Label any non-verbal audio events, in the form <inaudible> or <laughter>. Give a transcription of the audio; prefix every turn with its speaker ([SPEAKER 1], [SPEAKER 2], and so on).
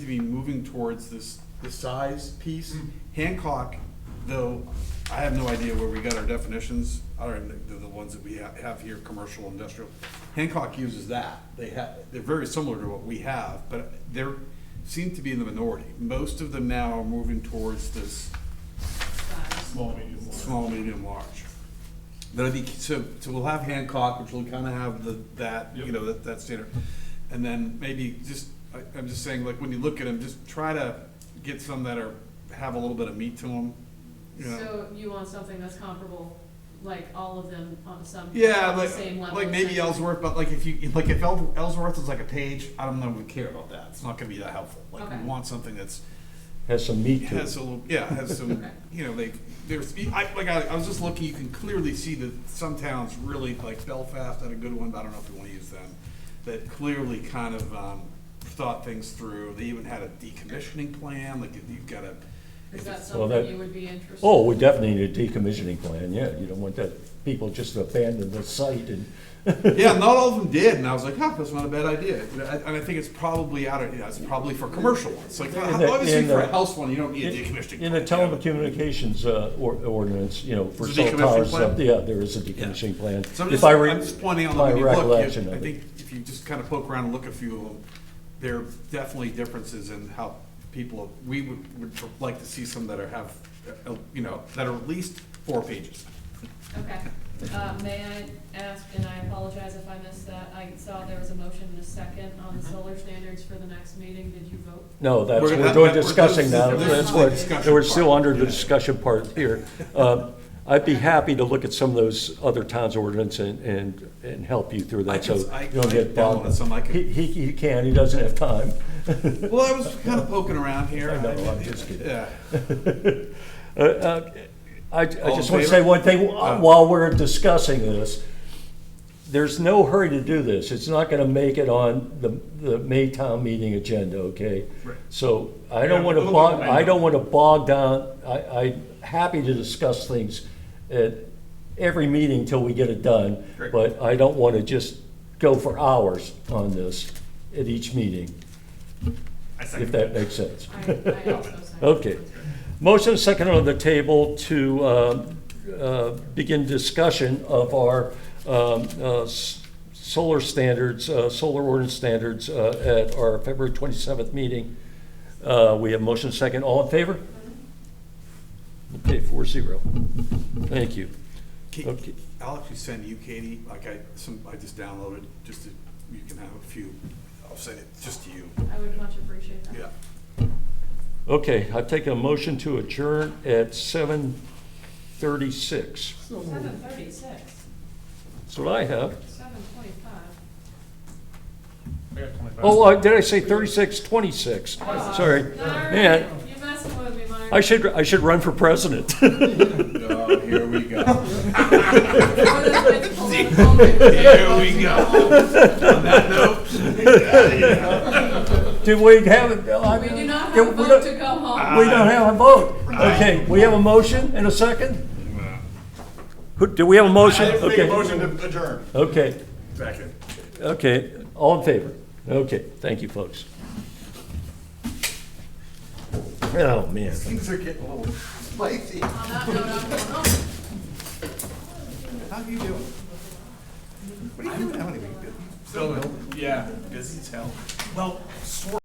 [SPEAKER 1] to be moving towards this, the size piece. Hancock, though, I have no idea where we got our definitions, I don't even, the, the ones that we ha- have here, commercial, industrial. Hancock uses that, they have, they're very similar to what we have, but they're, seem to be in the minority. Most of them now are moving towards this
[SPEAKER 2] Small, medium, large.
[SPEAKER 1] small, medium, large. But I think, so, so we'll have Hancock, which will kind of have the, that, you
[SPEAKER 2] Yep.
[SPEAKER 1] know, that, that standard. And then maybe just, I, I'm just saying, like, when you look at them, just try to get some that are, have a little bit of meat to them, you know?
[SPEAKER 3] So you want something that's comparable, like all of them on some, on
[SPEAKER 1] Yeah,
[SPEAKER 3] the
[SPEAKER 1] like,
[SPEAKER 3] same level?
[SPEAKER 1] like maybe
[SPEAKER 3] essentially.
[SPEAKER 1] Ellsworth, but like if you, like if El- Ellsworth is like a page, I don't know if we care about that, it's not gonna be that helpful. Like, we
[SPEAKER 3] Okay.
[SPEAKER 1] want something that's,
[SPEAKER 4] Has some meat to
[SPEAKER 1] has
[SPEAKER 4] it.
[SPEAKER 1] a little, yeah, has some,
[SPEAKER 3] Okay.
[SPEAKER 1] you know, they, there's, I, like, I, I was just looking, you can clearly see that some towns really, like Belfast had a good one, but I don't know if you wanna use them, that clearly kind of, um, thought things through, they even had a decommissioning plan, like, if you've got a.
[SPEAKER 3] Is
[SPEAKER 1] if
[SPEAKER 3] that
[SPEAKER 1] it's-
[SPEAKER 4] Well,
[SPEAKER 3] something
[SPEAKER 4] that-
[SPEAKER 3] you would be interested?
[SPEAKER 4] Oh, we definitely need a decommissioning plan, yeah, you don't want that, people just abandon the site and,
[SPEAKER 1] Yeah, not all of them did, and I was like, huh, that's not a bad idea, You know, I- and I think it's probably out of, yeah, it's probably for commercial ones, like,
[SPEAKER 4] In the-
[SPEAKER 1] obviously
[SPEAKER 4] in
[SPEAKER 1] for
[SPEAKER 4] the-
[SPEAKER 1] a house one, you don't need a decommissioning.
[SPEAKER 4] in the
[SPEAKER 1] plan, you know.
[SPEAKER 4] telecommunications uh, or- ordinance, you know, for
[SPEAKER 1] Is there a
[SPEAKER 4] cell
[SPEAKER 1] decommissioning
[SPEAKER 4] towers,
[SPEAKER 1] plan?
[SPEAKER 4] uh, yeah, there is a decommissioning plan.
[SPEAKER 1] So I'm
[SPEAKER 4] If
[SPEAKER 1] just,
[SPEAKER 4] I re-
[SPEAKER 1] I'm just pointing out, that
[SPEAKER 4] my
[SPEAKER 1] when you look,
[SPEAKER 4] recollection
[SPEAKER 1] if- I
[SPEAKER 4] of it.
[SPEAKER 1] think if you just kind of poke around and look at a few of them, there are definitely differences in how people, we would, would like to see some that are have, uh, you know, that are at least four pages.
[SPEAKER 3] Okay, uh, may I ask, and I apologize if I missed that, I saw there was a motion and a second on the
[SPEAKER 4] Uh-huh.
[SPEAKER 3] solar standards for the next meeting, did you vote?
[SPEAKER 4] No, that's,
[SPEAKER 1] We're gonna-
[SPEAKER 4] we're
[SPEAKER 1] that-
[SPEAKER 4] doing
[SPEAKER 1] that- we're- this
[SPEAKER 4] discussing
[SPEAKER 1] is-
[SPEAKER 4] now,
[SPEAKER 3] this
[SPEAKER 4] that's
[SPEAKER 3] is the
[SPEAKER 4] what,
[SPEAKER 1] discussion
[SPEAKER 4] we're still
[SPEAKER 1] part,
[SPEAKER 4] under the
[SPEAKER 1] yeah.
[SPEAKER 4] discussion
[SPEAKER 1] <laughs>
[SPEAKER 4] part here. Um, I'd be happy to look at some of those other towns' ordinance and, and, and help you through
[SPEAKER 1] I
[SPEAKER 4] that, so
[SPEAKER 1] can-
[SPEAKER 4] you
[SPEAKER 1] I-
[SPEAKER 4] don't
[SPEAKER 1] I
[SPEAKER 4] get
[SPEAKER 1] downloaded
[SPEAKER 4] bogged.
[SPEAKER 1] some, I could-
[SPEAKER 4] He, he he can, he doesn't have time.
[SPEAKER 1] Well, I was kind of poking around here.
[SPEAKER 4] I know, I'm just kidding.
[SPEAKER 1] Yeah.
[SPEAKER 4] Uh, uh, I, I
[SPEAKER 1] All
[SPEAKER 4] just
[SPEAKER 1] in
[SPEAKER 4] want
[SPEAKER 1] favor?
[SPEAKER 4] to say one thing,
[SPEAKER 1] Oh.
[SPEAKER 4] uh, while we're discussing this, there's no hurry to do this, it's not gonna make it on the, the May town meeting agenda, okay?
[SPEAKER 1] Right.
[SPEAKER 4] So I
[SPEAKER 1] Yeah,
[SPEAKER 4] don't want
[SPEAKER 1] a
[SPEAKER 4] to
[SPEAKER 1] little
[SPEAKER 4] bog,
[SPEAKER 1] bit, I
[SPEAKER 4] I don't
[SPEAKER 1] know.
[SPEAKER 4] want to bog down, I, I'm happy to discuss things at every meeting till we get it done,
[SPEAKER 1] Great.
[SPEAKER 4] but I don't want to just go for hours on this at each meeting,
[SPEAKER 1] I
[SPEAKER 4] if
[SPEAKER 1] second
[SPEAKER 4] that makes sense.
[SPEAKER 3] I, I
[SPEAKER 4] <laughs>
[SPEAKER 3] also second.
[SPEAKER 4] Okay. Motion second on the table to um, uh, begin discussion of our um, uh, s- solar standards, uh, solar ordinance standards uh, at our February 27th meeting. Uh, We have motion second. All in favor? Okay, four zero. Thank you.
[SPEAKER 1] Ki-
[SPEAKER 4] Okay.
[SPEAKER 1] I'll actually send you, Katie, like I, some, I just downloaded, just to, you can have a few, I'll send it just to you.
[SPEAKER 3] I would much appreciate that.
[SPEAKER 1] Yeah.
[SPEAKER 4] Okay, I take a motion to adjourn at 7:36.
[SPEAKER 3] Seven thirty-six,
[SPEAKER 4] That's what I have.
[SPEAKER 3] seven twenty-five.
[SPEAKER 2] I got 25.
[SPEAKER 4] Oh, uh, did I say 36, 26? Sorry. Man,
[SPEAKER 3] You're messing with me, Myron.
[SPEAKER 4] I should, I should run for president. <laughs>
[SPEAKER 1] Oh, here we
[SPEAKER 3] <laughs>
[SPEAKER 1] go.
[SPEAKER 3] Before this gets political, we're gonna
[SPEAKER 1] Here we
[SPEAKER 3] vote
[SPEAKER 1] go.
[SPEAKER 3] to
[SPEAKER 1] On that note,
[SPEAKER 4] Did we have, a- I
[SPEAKER 3] We
[SPEAKER 4] mean,
[SPEAKER 3] do not have
[SPEAKER 4] did
[SPEAKER 3] a
[SPEAKER 4] we
[SPEAKER 3] vote
[SPEAKER 4] don't-
[SPEAKER 3] to go home.
[SPEAKER 4] we don't have a vote. Okay, we have a motion and a second? Who, do we have a motion?
[SPEAKER 2] I make a
[SPEAKER 4] Okay.
[SPEAKER 2] motion to adjourn.
[SPEAKER 4] Okay,
[SPEAKER 1] second.
[SPEAKER 4] okay, all in favor? Okay, thank you, folks. Oh, man.
[SPEAKER 1] Things are getting a little spicy.
[SPEAKER 3] On that note, I'm going home.
[SPEAKER 1] How are you doing? What are you doing? How many weeks? Still, yeah, busy as hell. Well, sort